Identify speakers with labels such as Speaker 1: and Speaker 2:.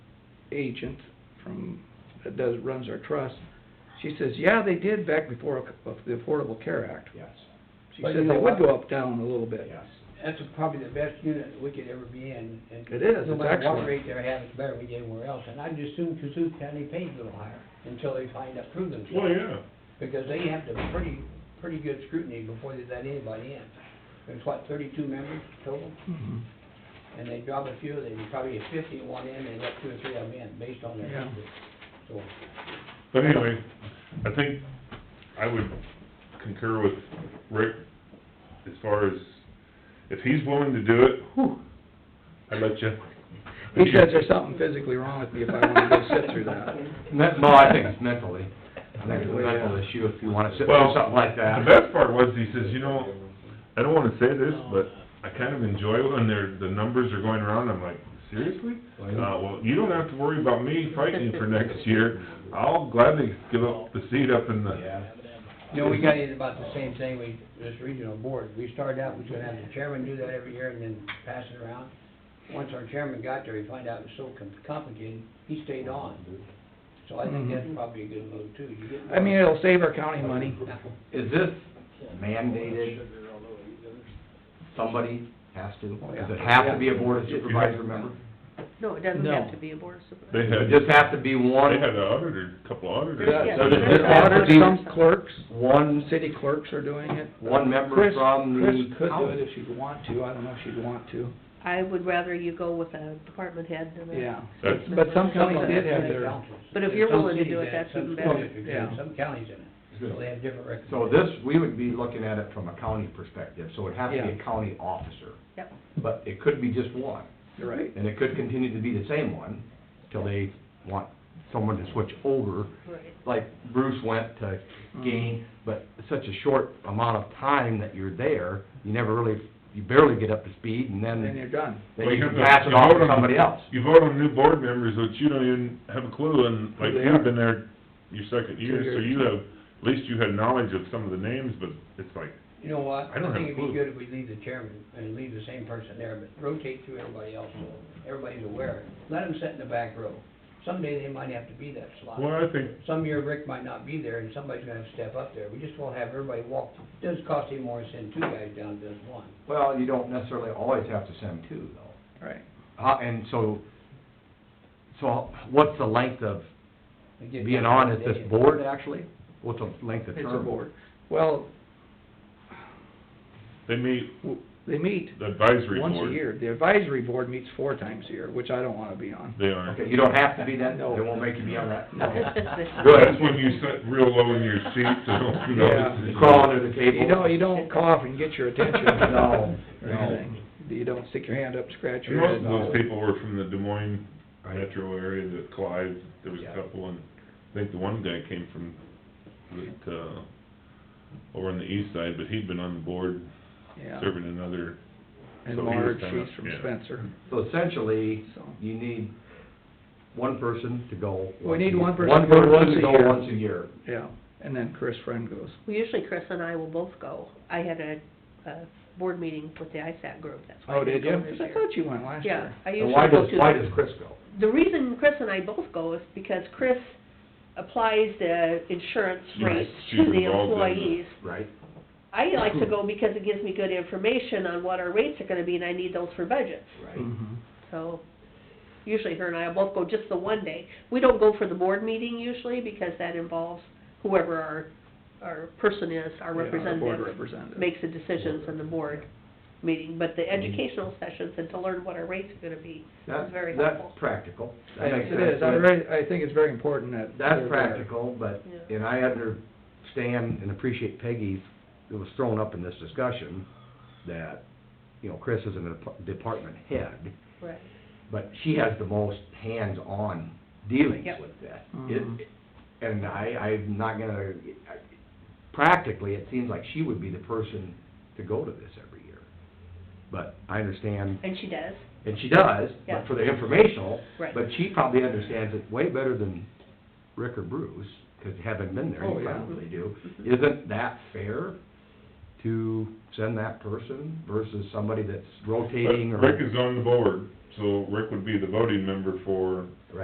Speaker 1: agent from, that does, runs our trust, she says, yeah, they did back before the Affordable Care Act.
Speaker 2: Yes,
Speaker 1: She
Speaker 3: But
Speaker 1: says
Speaker 3: you know
Speaker 1: they would
Speaker 3: what?
Speaker 1: go up, down a little bit.
Speaker 2: yes.
Speaker 3: That's probably the best unit we could ever be in. and
Speaker 1: It is,
Speaker 3: No
Speaker 1: it's
Speaker 3: matter what
Speaker 1: excellent.
Speaker 3: rate they have, it's better we get anywhere else, and I'd just assume Kazoo County pays a little higher until they find out, prove themselves.
Speaker 4: Well, yeah,
Speaker 3: Because they have to pretty, pretty good scrutiny before they let anybody in. There's what, thirty-two members total?
Speaker 1: Mhm.
Speaker 3: And they drop a few, they probably get fifty at one end, they let two or three of them in, based on their
Speaker 1: Yeah.
Speaker 3: history. So,
Speaker 4: but anyway, I think I would concur with Rick as far as, if he's willing to do it, whew, I'd let you.
Speaker 1: He says there's something physically wrong with me if I wanna go sit through that.
Speaker 5: Well, I think it's mentally, I think it's a mental issue if you wanna sit
Speaker 4: Well,
Speaker 5: through something like
Speaker 4: The
Speaker 5: that.
Speaker 4: best part was, he says, you know, I don't wanna say this, but I kind of enjoy when they're, the numbers are going around, I'm like, seriously? Uh, well, you don't have to worry about me fighting you for next year, I'll gladly give up the seat up in the,
Speaker 2: Yeah,
Speaker 3: You know, we got in about the same thing, we, this regional board, we started out, we was gonna have the chairman do that every year and then pass it around. Once our chairman got there, he found out it was so com- complicated, he stayed on. So I think that's
Speaker 1: Mhm.
Speaker 3: probably a good move too, you get.
Speaker 1: I mean, it'll save our county money.
Speaker 5: Is this mandated, somebody has to,
Speaker 4: Oh,
Speaker 5: does it have to be a board of supervisor member?
Speaker 6: No, it doesn't
Speaker 1: No.
Speaker 6: have to be a board of
Speaker 4: they
Speaker 5: Does
Speaker 6: supervisors.
Speaker 5: it
Speaker 4: had,
Speaker 5: just have to be
Speaker 4: they
Speaker 5: one,
Speaker 4: had a auditor, a couple auditors.
Speaker 6: Yeah,
Speaker 5: so does
Speaker 1: There's
Speaker 5: this have to
Speaker 1: auditors,
Speaker 5: be
Speaker 1: some clerks,
Speaker 5: one,
Speaker 1: city clerks are doing it.
Speaker 5: one member
Speaker 1: Chris,
Speaker 5: from
Speaker 1: Chris
Speaker 5: the
Speaker 1: could do it
Speaker 5: county?
Speaker 1: if she'd want to, I don't know if she'd want to,
Speaker 6: I would rather you go with a department head than a.
Speaker 1: yeah.
Speaker 4: That's-
Speaker 1: But some counties did have
Speaker 3: Some
Speaker 1: their,
Speaker 3: councils.
Speaker 6: But if you're
Speaker 3: Some
Speaker 6: willing to
Speaker 3: cities
Speaker 6: do it,
Speaker 3: have,
Speaker 6: that's
Speaker 3: some
Speaker 6: even better.
Speaker 3: districts have,
Speaker 1: Yeah.
Speaker 3: Some counties in it, so they have different
Speaker 5: So
Speaker 3: recommendations.
Speaker 5: this, we would be looking at it from a county perspective, so it'd have to be a county officer.
Speaker 6: Yep.
Speaker 5: But it could be just one,
Speaker 1: you're right,
Speaker 5: and it could continue to be the same one till they want someone to switch over
Speaker 6: Right.
Speaker 5: like Bruce went to gain, but it's such a short amount of time that you're there, you never really, you barely get up to speed, and
Speaker 1: and then
Speaker 5: then,
Speaker 1: you're done.
Speaker 5: then
Speaker 4: Well,
Speaker 5: you
Speaker 4: you
Speaker 5: can
Speaker 4: have
Speaker 5: pass it off
Speaker 4: vote
Speaker 5: to somebody else.
Speaker 4: You vote on new board members that you don't even have a clue, and like
Speaker 1: They
Speaker 4: you've
Speaker 1: are.
Speaker 4: been there your second year, so you have, at least you had knowledge of some of the names, but it's like,
Speaker 3: You know what,
Speaker 4: I don't
Speaker 3: I
Speaker 4: have a
Speaker 3: think it'd
Speaker 4: clue.
Speaker 3: be good if we leave the chairman and leave the same person there, but rotate through everybody else, so everybody's aware. Let them sit in the back row. Someday they might have to be that
Speaker 4: well,
Speaker 3: slot.
Speaker 4: I think,
Speaker 3: Some year Rick might not be there, and somebody's gonna have to step up there. We just won't have everybody walk. Doesn't cost any more to send two guys down than just one.
Speaker 5: Well, you don't necessarily always have to send two, though.
Speaker 1: Right.
Speaker 5: Uh, and so, so what's the length of
Speaker 3: They get
Speaker 5: being
Speaker 3: that
Speaker 5: on at this
Speaker 3: idea.
Speaker 5: board, actually? What's the length of
Speaker 1: It's
Speaker 5: term?
Speaker 1: a board. Well,
Speaker 4: they meet
Speaker 1: w- they meet
Speaker 4: the advisory board.
Speaker 1: once a year. The advisory board meets four times a year, which I don't wanna be on.
Speaker 4: They are.
Speaker 5: Okay, you don't have to be that, they
Speaker 1: No.
Speaker 5: won't make you be on that?
Speaker 1: No.
Speaker 4: That's when you sit real low in your seat, so who knows?
Speaker 1: Yeah.
Speaker 5: You crawl under the table?
Speaker 1: You know, you don't cough and get your attention.
Speaker 5: No,
Speaker 1: Or
Speaker 5: no.
Speaker 1: anything. You don't stick your hand up, scratch
Speaker 4: And
Speaker 1: your head.
Speaker 4: most of those people were from the Des Moines
Speaker 5: Right.
Speaker 4: metro area, the Clive, there was a
Speaker 5: Yeah.
Speaker 4: couple, and I think the one guy came from, that, uh, over on the east side, but he'd been on the board,
Speaker 1: Yeah,
Speaker 4: serving another
Speaker 1: and
Speaker 4: so he was
Speaker 1: Marge,
Speaker 4: kinda-
Speaker 1: she's from
Speaker 4: yeah.
Speaker 1: Spencer,
Speaker 5: So essentially,
Speaker 1: so.
Speaker 5: you need one person to go.
Speaker 1: We need one person
Speaker 5: One
Speaker 1: to go once
Speaker 5: person
Speaker 1: a
Speaker 5: to go
Speaker 1: year.
Speaker 5: once a year.
Speaker 1: Yeah, and then Chris Friend goes.
Speaker 6: Well, usually Chris and I will both go. I had a, a board meeting with the ISAC group, that's why
Speaker 1: Oh,
Speaker 6: I
Speaker 1: did
Speaker 6: didn't
Speaker 1: you?
Speaker 6: go this
Speaker 1: 'Cause I
Speaker 6: year.
Speaker 1: thought you went
Speaker 5: Oh,
Speaker 1: last
Speaker 6: Yeah,
Speaker 1: year.
Speaker 6: I
Speaker 5: And
Speaker 6: usually
Speaker 5: why
Speaker 6: go
Speaker 5: does,
Speaker 6: to.
Speaker 5: why does Chris go?
Speaker 6: The reason Chris and I both go is because Chris applies the insurance
Speaker 4: Yes,
Speaker 6: rates
Speaker 4: she's
Speaker 6: to the
Speaker 4: involved in the-
Speaker 6: employees.
Speaker 5: Right.
Speaker 6: I like to go because it gives me good information on what our rates are gonna be, and I need those for budgets.
Speaker 5: Right.
Speaker 1: Mhm.
Speaker 6: So, usually her and I both go just the one day. We don't go for the board meeting usually, because that involves whoever our, our person is,
Speaker 1: Yeah,
Speaker 6: our
Speaker 1: the Board
Speaker 6: representative,
Speaker 1: representative.
Speaker 6: makes the decisions in the board meeting. But the educational sessions and to learn what our rates are gonna be is
Speaker 5: That,
Speaker 6: very helpful.
Speaker 5: that's practical. That
Speaker 1: Yes,
Speaker 5: makes
Speaker 1: it
Speaker 5: sense.
Speaker 1: is. I very, I think it's very important that.
Speaker 5: That's
Speaker 1: they're there.
Speaker 5: practical, but,
Speaker 6: Yeah.
Speaker 5: and I understand and appreciate Peggy's, it was thrown up in this discussion, that, you know, Chris is a dep- department head,
Speaker 6: Right.
Speaker 5: but she has the most hands-on dealings
Speaker 6: Yep.
Speaker 5: with that.
Speaker 1: Mhm.
Speaker 5: It, and I, I'm not gonna, practically, it seems like she would be the person to go to this every year. But I understand,
Speaker 6: And she does,
Speaker 5: and she does,
Speaker 6: Yeah.
Speaker 5: but for the informational,
Speaker 6: Right.
Speaker 5: but she probably understands it way better than Rick or Bruce, 'cause having been there,
Speaker 1: Oh,
Speaker 5: you
Speaker 1: yeah. Mm-hmm.
Speaker 5: probably do. Isn't that fair to send that person versus somebody that's
Speaker 4: But
Speaker 5: rotating or?
Speaker 4: Rick is on the board, so Rick would be the voting member for